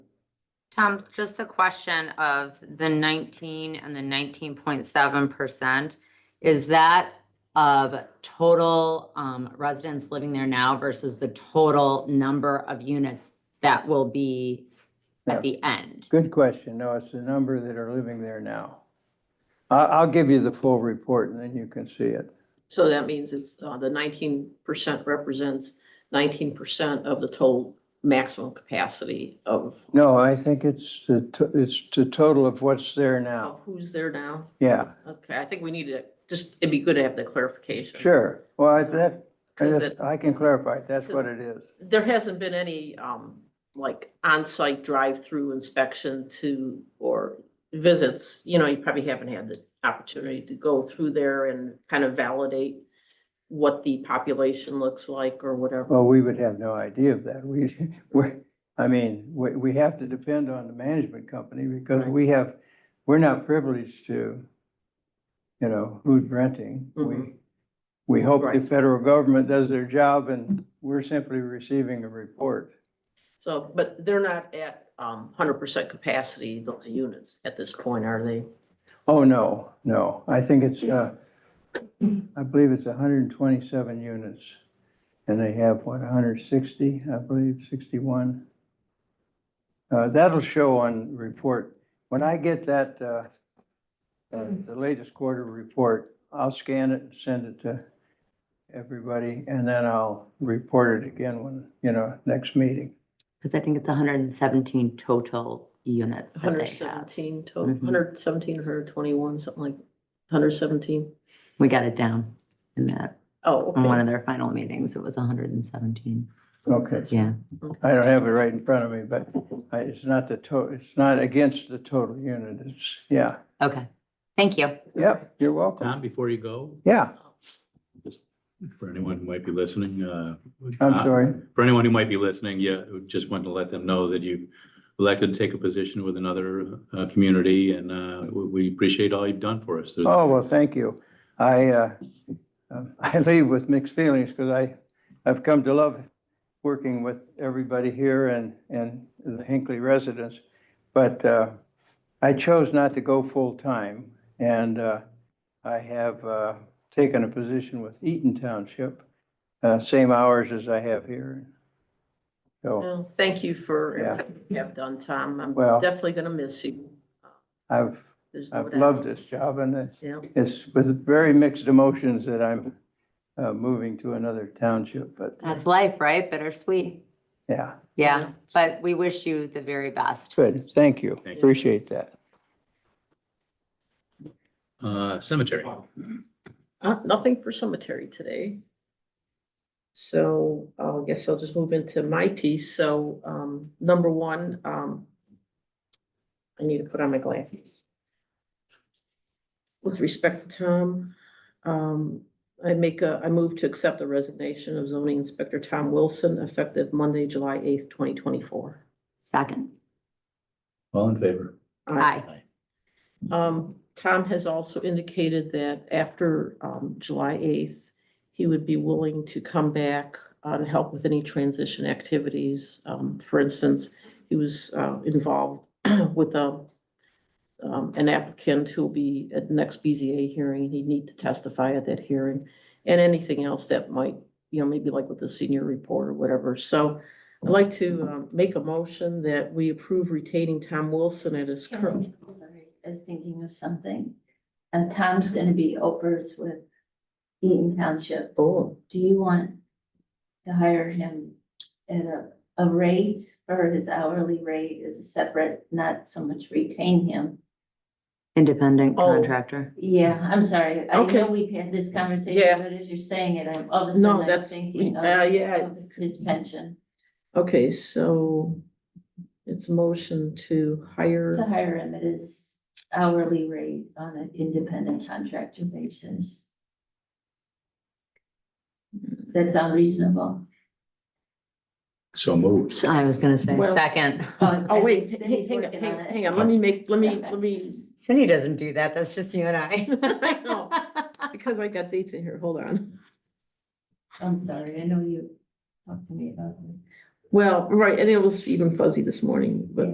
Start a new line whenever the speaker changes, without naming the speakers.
Tom, just a question of the nineteen and the nineteen point seven percent. Is that of total um, residents living there now versus the total number of units that will be at the end?
Good question. No, it's the number that are living there now. I, I'll give you the full report and then you can see it.
So that means it's, uh, the nineteen percent represents nineteen percent of the total maximum capacity of,
No, I think it's the, to- it's the total of what's there
of
now.
who's there now.
Yeah,
Okay, I think we need to, just, it'd be good to have the clarification.
sure. Well, I- that, I
Because
just-
it-
I can clarify. it. That's what it is.
There hasn't been any, um, like on-site drive-through inspection to, or visits. You know, you probably haven't had the opportunity to go through there and kind of validate what the population looks like or whatever.
Well, we would have no idea of that. We, we're, I mean, we, we have to depend on the management company because
Right.
we have, we're not privileged to, you know, who's renting. We,
Mhm.
we hope the
Right.
federal government does their job and we're simply receiving a report.
So, but they're not at, um, hundred percent capacity, those units at this point, are they?
Oh, no, no. I think it's, uh, I believe it's hundred and twenty-seven units. And they have, what, hundred and sixty, I believe, sixty-one? Uh, that'll show on report. When I get that, uh, uh, the latest quarter report, I'll scan it and send it to everybody, and then I'll report it again when, you know, next meeting.
Because I think it's hundred and seventeen total units that
Hundred
they have.
seventeen total,
Mm-hmm.
Mhm.
hundred seventeen, hundred twenty-one, something like, hundred seventeen?
We got it down in that,
Oh,
on one
okay.
of their final meetings, it was hundred and seventeen,
Okay.
yeah.
I don't have it right in front of me, but I- it's not the total, it's not against the total unit, it's, yeah.
Okay, thank you.
Yep, you're welcome.
Tom, before you go,
Yeah,
for anyone who might be listening, uh.
I'm
uh,
sorry.
For anyone who might be listening, yeah, just want to let them know that you elected to take a position with another, uh, community and, uh, we, we appreciate all you've done for us.
Oh, well, thank you. I, uh, um, I leave with mixed feelings because I, I've come to love working with everybody here and, and the Hinckley residents. But uh, I chose not to go full-time and uh, I have uh, taken a position with Eaton Township, uh, same hours as I have here. So
Well, thank you for
Yeah.
everything you have done, Tom. I'm
Well-
definitely gonna miss you.
I've,
There's no
I've
doubt.
loved this job and it's
Yeah,
It's with very mixed emotions that I'm uh, moving to another township, but
That's life, right? Bittersweet.
yeah,
Yeah,
Yeah.
but we wish you the very best.
good. Thank you.
Thank you.
Appreciate that.
Uh, cemetery.
uh, nothing for cemetery today. So uh, I guess I'll just move into my piece. So, um, number one, um, I need to put on my glasses. With respect to Tom, um, I make a, I move to accept the resignation of zoning inspector Tom Wilson effective Monday, July eighth, twenty twenty-four.
Second.
All in favor?
Aye.
Um, Tom has also indicated that after, um, July eighth, he would be willing to come back uh, and help with any transition activities. Um, for instance, he was, uh, involved with a, um, an applicant who'll be at the next BZA hearing. He'd need to testify at that hearing and anything else that might, you know, maybe like with the senior report or whatever. So I'd like to, um, make a motion that we approve retaining Tom Wilson at his
Can
current.
I- sorry, I was thinking of something. And Tom's gonna be opers with Eaton Township.
Oh.
Do you want to hire him at a, a rate or his hourly rate is a separate, not so much retain him?
Independent
Oh.
contractor.
Yeah, I'm sorry. I
Okay.
know we've had this
Yeah.
conversation, but as you're saying it, I'm all of a
No,
sudden I'm
that's-
thinking of
uh, yeah.
of his pension,
Okay, so it's motion to hire,
to hire him at his hourly rate on an independent contractor basis. Does that sound reasonable?
So moved.
I was gonna say
Well-
second.
oh wait,
Cindy's
hang hang on,
working on
hang
it.
hang on, let me make, let me, let me,
Cindy doesn't do that. That's just you and
I know.
I.
because I got dates in here, hold on.
I'm sorry, I know you talked to me about it.
Well, right, and it was even fuzzy this morning, but